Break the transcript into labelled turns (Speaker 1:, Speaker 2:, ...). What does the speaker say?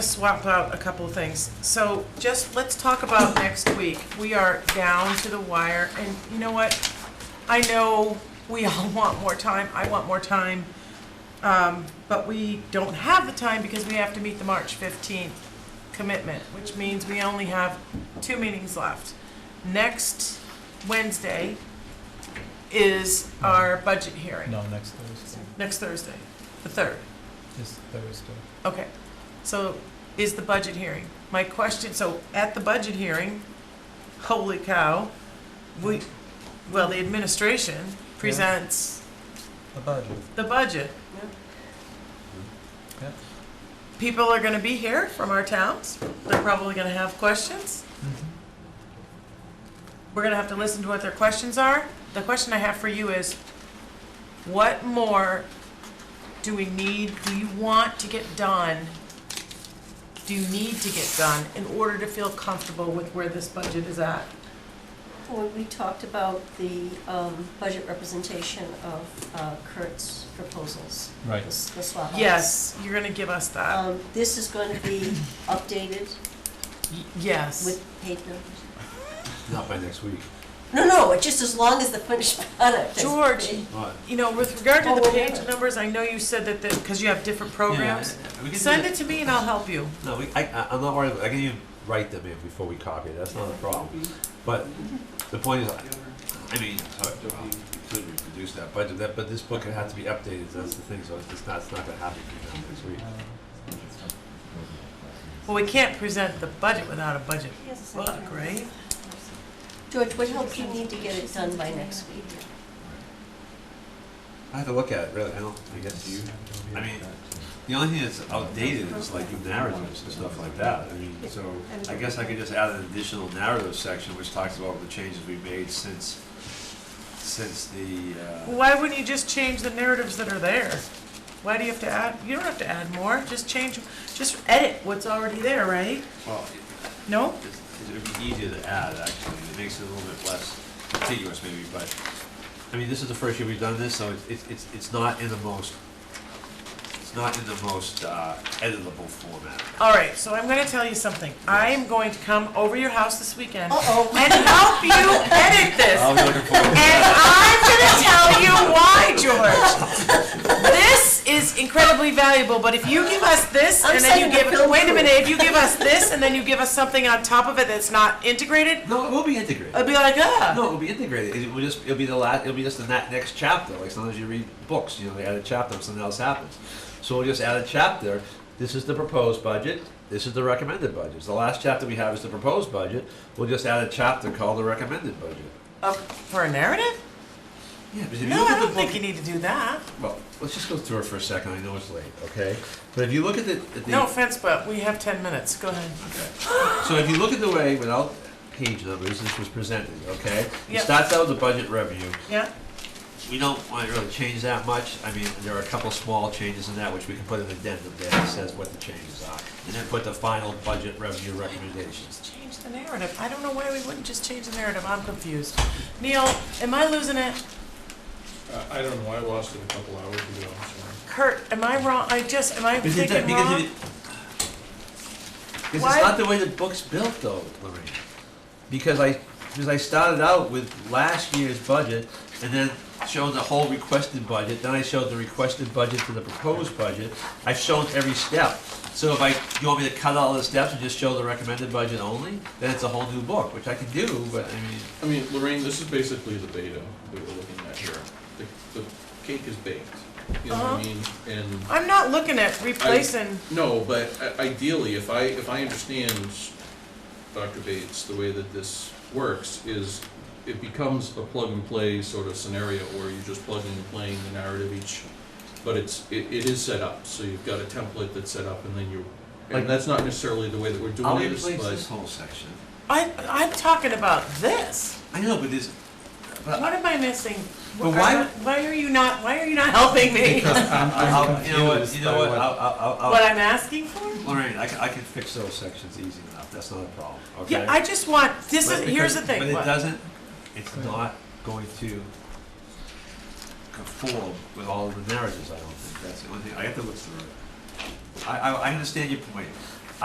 Speaker 1: swap out a couple of things. So just, let's talk about next week. We are down to the wire, and you know what? I know we all want more time, I want more time, um, but we don't have the time because we have to meet the March 15th commitment, which means we only have two meetings left. Next Wednesday is our budget hearing,
Speaker 2: No, next Thursday,
Speaker 1: next Thursday, the 3rd.
Speaker 2: this Thursday.
Speaker 1: Okay, so is the budget hearing. My question, so at the budget hearing, holy cow, we, well, the administration presents
Speaker 2: The budget,
Speaker 1: the budget.
Speaker 2: yeah.
Speaker 1: People are gonna be here from our towns. They're probably gonna have questions. We're gonna have to listen to what their questions are. The question I have for you is, what more do we need, do you want to get done? Do you need to get done in order to feel comfortable with where this budget is at?
Speaker 3: When we talked about the um, budget representation of uh, Kurt's proposals, the
Speaker 2: Right.
Speaker 3: s- the swap outs.
Speaker 1: Yes, you're gonna give us that.
Speaker 3: Um, This is going to be updated
Speaker 1: Y- Yes.
Speaker 3: with paid numbers?
Speaker 4: Not by next week.
Speaker 3: No, no, it's just as long as the finished product is.
Speaker 1: George,
Speaker 4: But
Speaker 1: you know, with regard to
Speaker 3: Oh,
Speaker 1: the
Speaker 3: well,
Speaker 1: page
Speaker 3: yeah.
Speaker 1: numbers, I know you said that, because you have different programs.
Speaker 4: we can
Speaker 1: Send
Speaker 4: do
Speaker 1: it to me and I'll help you.
Speaker 4: No, we, I, I- I'm not worried. I can even write them in before we copy it. That's not a problem. But the point is, I, I mean, sorry, we could reproduce that budget, that, but this book has to be updated. That's the thing. So it's just not, it's not going to happen between now and next
Speaker 2: Uh,
Speaker 4: week.
Speaker 1: Well, we can't present the budget without a budget
Speaker 3: Yes, I
Speaker 1: book,
Speaker 3: do.
Speaker 1: right?
Speaker 3: George, what help do you need to get it done by next week?
Speaker 4: I have to look at it really. I don't. I guess you. I mean, the only thing that's outdated is like your narratives and stuff like that. I mean, so I guess I could just add an additional narrative section which talks about the changes we made since since the. Uh,
Speaker 1: Well, Why wouldn't you just change the narratives that are there? Why do you have to add, you don't have to add more, just change, just edit what's already there, right?
Speaker 4: Well,
Speaker 1: No?
Speaker 4: it- it's- it'd be easier to add, actually, it makes it a little bit less contiguous maybe, but, I mean, this is the first year we've done this, so it's- it's, it's, it's not in the most, it's not in the most uh, editable format.
Speaker 1: All right, so I'm gonna tell you something. I am going to come over your house this weekend
Speaker 3: Uh-oh.
Speaker 1: and help you edit this.
Speaker 4: I'll be looking forward to
Speaker 1: And I'm gonna tell you why, George. This is incredibly valuable, but if you give us this
Speaker 3: I'm
Speaker 1: and then you
Speaker 3: sending a
Speaker 1: give,
Speaker 3: film
Speaker 1: wait a
Speaker 3: crew.
Speaker 1: minute, if you give us this and then you give us something on top of it that's not integrated,
Speaker 4: No, it will be
Speaker 1: I'd
Speaker 4: integrated.
Speaker 1: be like, ah.
Speaker 4: No, it'll be integrated, it will just, it'll be the la, it'll be just the na- next chapter, like sometimes you read books, you know, they add a chapter, and something else happens. So we'll just add a chapter, this is the proposed budget, this is the recommended budget. So The last chapter we have is the proposed budget, we'll just add a chapter called the recommended budget.
Speaker 1: Uh, For a narrative?
Speaker 4: Yeah, but if you
Speaker 1: No,
Speaker 4: look
Speaker 1: I
Speaker 4: at the
Speaker 1: don't
Speaker 4: book,
Speaker 1: think you need to do that.
Speaker 4: well, let's just go through it for a second. I know it's late, okay? But if you look at the, at the
Speaker 1: No offense, but we have 10 minutes. Go ahead.
Speaker 4: so if you look at the way without page numbers this was presented, okay? It
Speaker 1: Yeah.
Speaker 4: starts out with the budget revenue.
Speaker 1: Yeah?
Speaker 4: We don't want to really change that much. I mean, there are a couple small changes in that which we can put an addendum there that says what the changes are, and then put the final budget revenue recommendations.
Speaker 1: Just change the narrative. I don't know why we wouldn't just change the narrative. I'm confused. Neil, am I losing it?
Speaker 5: Uh, I don't know, I lost it a couple hours ago, I'm sorry.
Speaker 1: Kurt, am I wrong? I just, am I
Speaker 4: Because it-
Speaker 1: thinking
Speaker 4: because
Speaker 1: wrong?
Speaker 4: it- Because
Speaker 1: Why-
Speaker 4: it's not the way the book's built though, Lorraine. Because I, because I started out with last year's budget and then showed the whole requested budget, then I showed the requested budget to the proposed budget. I've shown every step. So if I, you want me to cut all the steps and just show the recommended budget only, then it's a whole new book, which I could do, but I mean,
Speaker 5: I mean, Lorraine, this is basically the beta we were looking at here. The, the cake is baked, you know what I
Speaker 1: Uh-huh.
Speaker 5: mean? And,
Speaker 1: I'm not looking at replacing.
Speaker 5: no, but i- ideally, if I, if I understand, Dr. Bates, the way that this works is it becomes a plug-and-play sort of scenario where you're just plugging and playing the narrative each, but it's, it, it is set up, so you've got a template that's set up and then you,
Speaker 4: Like-
Speaker 5: and that's not necessarily the way that we're
Speaker 4: I'll
Speaker 5: doing this, but.
Speaker 4: replace this whole section.
Speaker 1: I, I'm talking about this.
Speaker 4: I know, but this, but
Speaker 1: What am I missing?
Speaker 4: But why-
Speaker 1: Are- Why are you not, why are you not helping me?
Speaker 4: I'll, you know what, you know what, I'll, I'll, I'll- I'll.
Speaker 1: What I'm asking for?
Speaker 4: Lorraine, I can, I can fix those sections easy enough, that's not a problem, okay?
Speaker 1: Yeah, I just want, this is,
Speaker 4: But
Speaker 1: here's the
Speaker 4: because- But
Speaker 1: thing.
Speaker 4: it
Speaker 1: What?
Speaker 4: doesn't, it's not going to conform with all the narratives, I don't think, that's the only thing, I have to look through it. I, I, I understand your point,